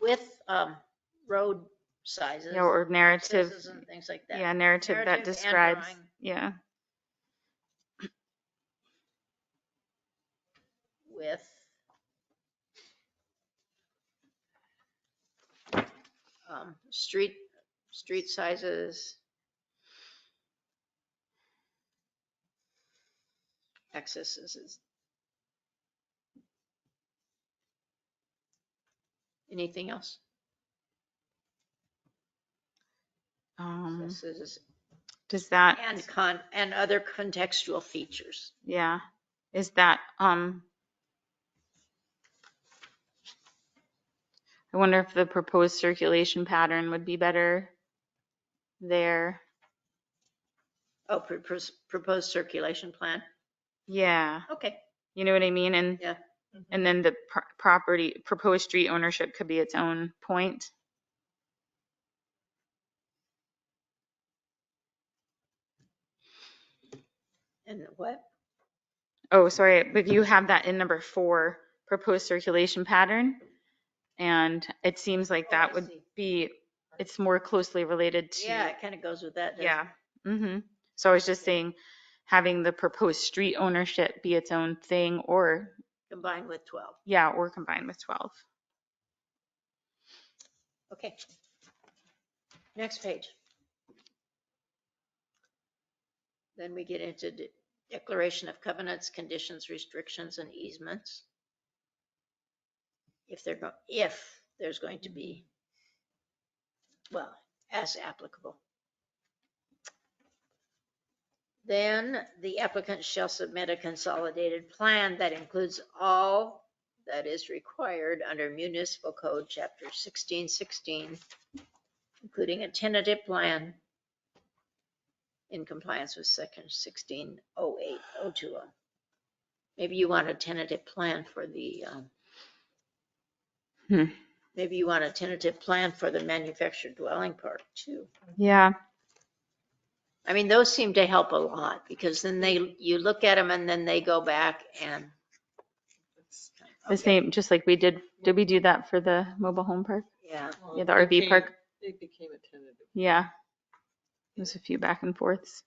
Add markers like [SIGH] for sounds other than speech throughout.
with um, road sizes. Yeah, or narrative, sizes And things like that. yeah, narrative that Narrative and describes, drawing. yeah. with um, street, street sizes. Accesses is. Anything else? Um, Accesses does that, and con, and other contextual features. yeah, is that, um, I wonder if the proposed circulation pattern would be better there. Oh, pr- pr- proposed circulation plan. Yeah, Okay, you know what I mean? And Yeah. And then the pro- property, proposed street ownership could be its own point. and what? Oh, sorry, but you have that in number four, proposed circulation pattern. And it seems like Oh, I that would see. be, it's more closely related to. Yeah, it kind of goes with that. doesn't it? Yeah. hmm So I was just saying, having the proposed street ownership be its own thing or, Combined with 12. yeah, or combined with 12. Okay. Next page. Then we get into de- declaration of covenants, conditions, restrictions, and easements. If they're, go- if there's going to be, well, as applicable. Then the applicant shall submit a consolidated plan that includes all that is required under municipal code, chapter sixteen sixteen, including a tentative plan in compliance with section sixteen oh eight oh two oh. Maybe you want a tentative plan for the, um, Hmm. maybe you want a tentative plan for the manufactured dwelling part too. Yeah. I mean, those seem to help a lot because then they, you look at them and then they go back and. The Okay, same, just like we did, did we do that for the mobile home park? Yeah. Well, Yeah, it the RV became- park. It became a tentative. Yeah. There's a few back and forths.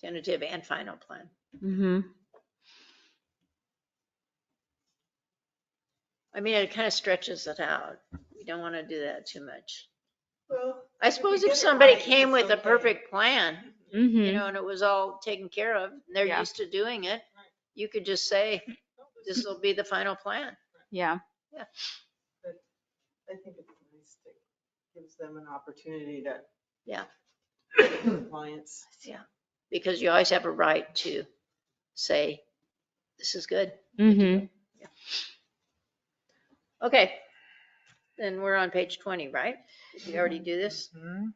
tentative and final plan. hmm I mean, it kind of stretches it out. We don't want to do that too much. Well, I suppose if somebody came with a perfect plan, you hmm know, and it was all taken care of, and they're Yeah. used to doing it, you could just say, this will be the final plan. Yeah. I think it's nice to gives them an opportunity to. Yeah. Compliance. Yeah. Because you always have a right to say, this is good. hmm Okay. Then we're on page 20, right? Did we already do this? Hmm?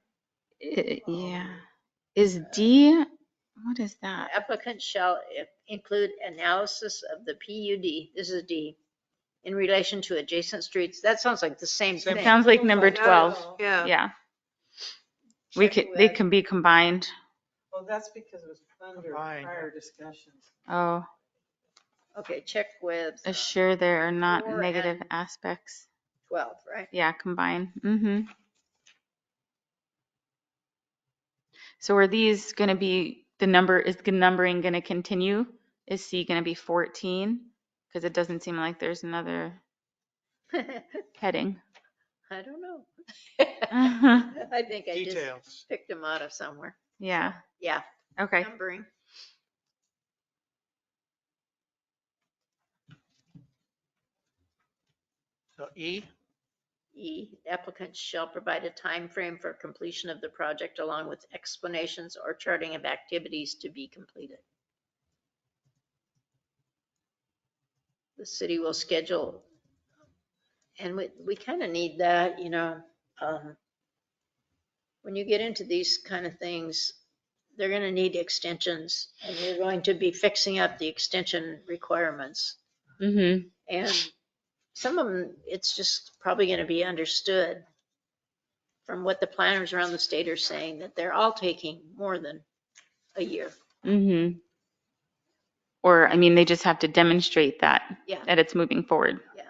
Yeah. Oh. Is D, what is that? applicant shall i- include analysis of the PUD, this is D, in relation to adjacent streets. That sounds like the same It thing. Sounds like number Not at 12. all. Yeah. We Check could, they with- can be combined. Well, that's because it was under Combined. prior discussions. Oh, Okay, check with uh, assure there are not Or negative and- aspects. 12, right? [LAUGHS] Yeah, combine. hmm So are these gonna be, the number, is the numbering gonna continue? Is C gonna be 14? Because it doesn't seem like there's another heading. [LAUGHS] I don't know. Uh-huh. I think I just Details. picked them out of somewhere. Yeah, Yeah, okay. numbering. So E, E, applicants shall provide a time frame for completion of the project along with explanations or charting of activities to be completed. The city will schedule, and we, we kind of need that, you know, um, when you get into these kind of things, they're going to need extensions and you're going to be fixing up the extension requirements. Mm-hmm. And some of them, it's just probably going to be understood from what the planners around the state are saying, that they're all taking more than a year. Mm-hmm. Or, I mean, they just have to demonstrate that, Yeah, that it's moving forward. yeah.